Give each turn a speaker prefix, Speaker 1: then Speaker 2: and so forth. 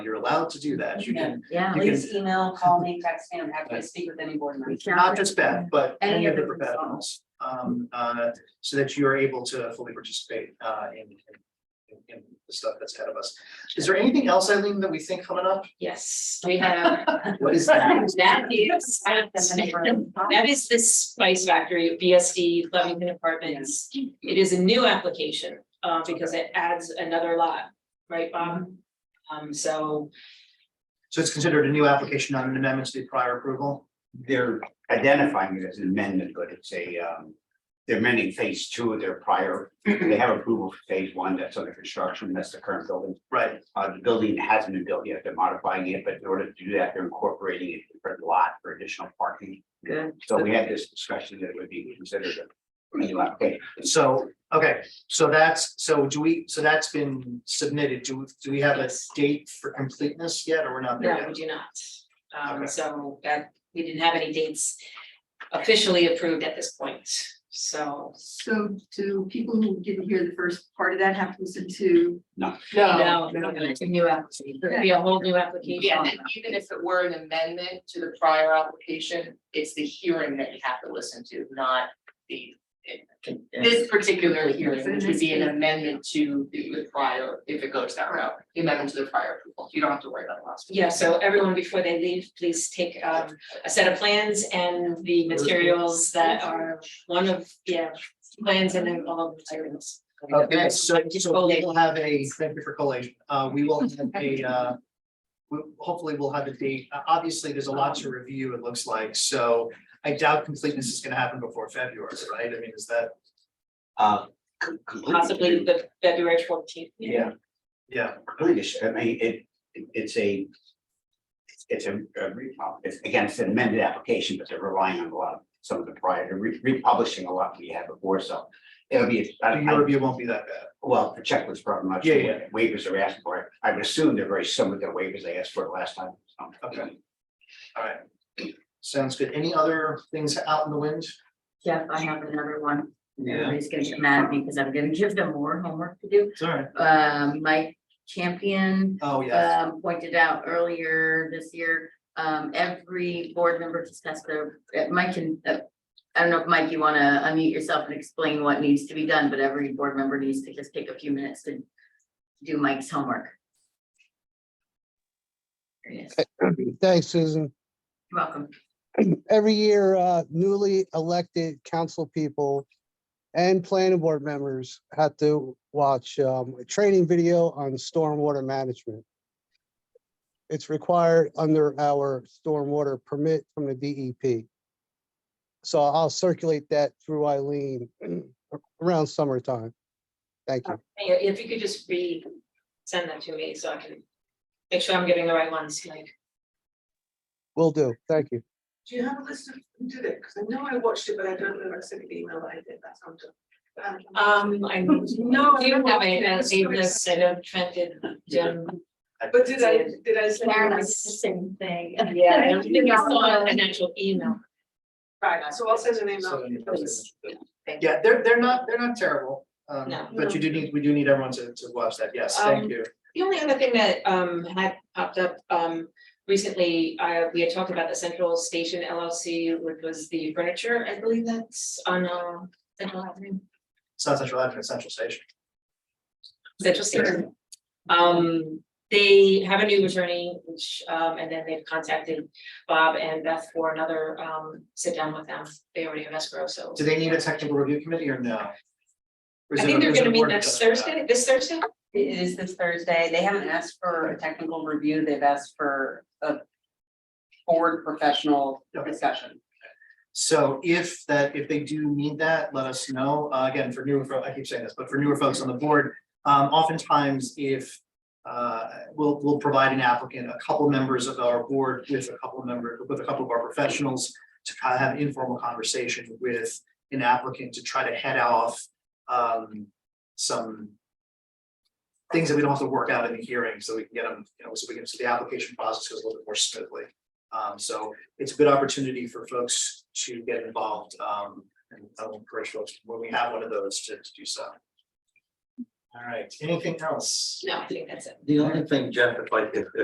Speaker 1: You're allowed to do that. You can,
Speaker 2: Yeah.
Speaker 1: You can-
Speaker 3: Please email, call me, text me, I'm happy to speak with any board member.
Speaker 1: not just that, but any of the
Speaker 3: Any of the
Speaker 1: professionals, um, uh, so that you are able to fully participate, uh, in, in- in the stuff that's ahead of us. Is there anything else, Eileen, that we think coming up?
Speaker 4: Yes, we have,
Speaker 1: What is that?
Speaker 4: that is, I have them in the room. that is this Spice Factory, BSD, Lovington Apartments. It is a new application, uh, because it adds another lot, right, Bob? Um, so
Speaker 1: So it's considered a new application, not an amendment to the prior approval?
Speaker 5: They're identifying it as an amendment, but it's a, um, they're amending phase two of their prior, they have approval for phase one, that's under construction, that's the current building.
Speaker 1: Right,
Speaker 5: Uh, the building hasn't been built yet, they're modifying it, but in order to do that, they're incorporating it for the lot for additional parking.
Speaker 2: Good.
Speaker 5: So we had this discussion that it would be considered a new application.
Speaker 1: so, okay, so that's, so do we, so that's been submitted, do, do we have a date for completeness yet, or we're not there
Speaker 4: No, we
Speaker 1: yet?
Speaker 4: do not. Um,
Speaker 1: Okay.
Speaker 4: so that, we didn't have any dates officially approved at this point, so.
Speaker 6: So do people who didn't hear the first part of that have to listen to?
Speaker 1: Oh,
Speaker 4: No,
Speaker 2: It's a new application.
Speaker 4: It'd be a whole new application.
Speaker 7: Yeah, and even if it were an amendment to the prior application, it's the hearing that you have to listen to, not the. This particular hearing, which would be an amendment to the the prior, if it goes that route, the amendment to the prior approval, you don't have to worry about the last. one.
Speaker 4: Yeah, so everyone, before they leave, please take um a set of plans and the materials that are one of, yeah, plans and then all of the materials.
Speaker 1: Okay, so, so we will have a, thank you for collation, uh, we will have a, uh. We, hopefully we'll have a date, Uh, obviously, there's a lot to review, it looks like, so I doubt completeness is gonna happen before February, right? I mean, is that,
Speaker 5: Uh, com- completely-
Speaker 4: Possibly the February fourteenth.
Speaker 5: Yeah,
Speaker 1: yeah,
Speaker 5: completely, I mean, it, it- it's a. It's a, a re- it's, again, it's an amended application, but they're relying on a lot, of some of the prior, they're re- republishing a lot we had before, so. It'll be, I,
Speaker 1: your
Speaker 5: I,
Speaker 1: review won't be that bad.
Speaker 5: well, the checklist problem, I'm not
Speaker 1: Yeah,
Speaker 5: sure what waivers are asked for, I would assume they're very similar to the waivers they asked for last time. so.
Speaker 1: Okay. All right. Sounds good. Any other things out in the wind?
Speaker 2: Jeff, I have another one.
Speaker 1: Yeah.
Speaker 2: Everybody's gonna get mad at me because I'm gonna give them more homework to do.
Speaker 1: It's all right.
Speaker 2: Um, Mike Champion
Speaker 1: Oh,
Speaker 4: Uh,
Speaker 1: yeah.
Speaker 2: um pointed out earlier this year, um, every board member discussed their, uh, Mike can, uh, I don't know if Mike, you wanna unmute yourself and explain what needs to be done, but every board member needs to just take a few minutes to do Mike's homework. There he is. You're
Speaker 8: Thanks, Susan.
Speaker 2: welcome.
Speaker 8: Every year, uh, newly elected council people and planning board members have to watch um, a training video on stormwater management. It's required under our stormwater permit from the DEP. So I'll circulate that through Eileen around summertime. Thank you.
Speaker 4: If you could just re, send that to me so I can make sure I'm getting the right ones, like.
Speaker 8: Will do. Thank you.
Speaker 9: Do you have a list of who did it? Because I know I watched it, but I don't know, I sent the email that I did, that's how I'm done.
Speaker 4: Um, I
Speaker 9: No,
Speaker 4: You don't have it,
Speaker 9: no,
Speaker 4: I saved this, I know Trent did, Jim.
Speaker 9: But did I, did I send? you
Speaker 3: Karen, I did the
Speaker 9: this?
Speaker 3: same thing.
Speaker 4: Yeah, I don't think I saw an actual email.
Speaker 9: Right, so I'll send an email.
Speaker 4: Thank you.
Speaker 1: Yeah, they're, they're not, they're not terrible. Um,
Speaker 4: No.
Speaker 1: but you do need, we do need everyone to, to watch that. Yes, thank
Speaker 4: Um,
Speaker 1: you.
Speaker 4: The only other thing that um had popped up um recently, uh we had talked about the Central Station LLC, which was the furniture, I believe that's on uh Central Avenue,
Speaker 1: It's not Central Avenue, it's Central Station.
Speaker 4: Central Station. Um, they have a new attorney, which um and then they've contacted Bob and Beth for another um sit down with them. They already have escrow, so.
Speaker 1: Do they need a technical review committee or no? Or is it
Speaker 4: I
Speaker 1: a-
Speaker 4: think they're
Speaker 1: is it a
Speaker 4: gonna meet
Speaker 1: board
Speaker 4: next
Speaker 1: adjustment?
Speaker 4: Thursday, this Thursday?
Speaker 3: It is this Thursday, they haven't asked for a technical review, they've asked for a board professional
Speaker 1: Okay.
Speaker 3: discussion.
Speaker 1: So if that, if they do need that, let us know. Uh, again, for newer, fo- I keep saying this, but for newer folks on the board, um, oftentimes if uh, we'll, we'll provide an applicant, a couple members of our board with a couple member, with a couple of our professionals to kind of have an informal conversation with an applicant to try to head off um, some things that we don't have to work out in the hearing, so we can get them, you know, so we can, so the application process goes a little bit more smoothly. Um, so it's a good opportunity for folks to get involved. Um, and I will encourage folks, when we have one of those, to, to do so. All right, anything else?
Speaker 4: No, I think that's it.
Speaker 10: The only thing, Jeff, if I, if, if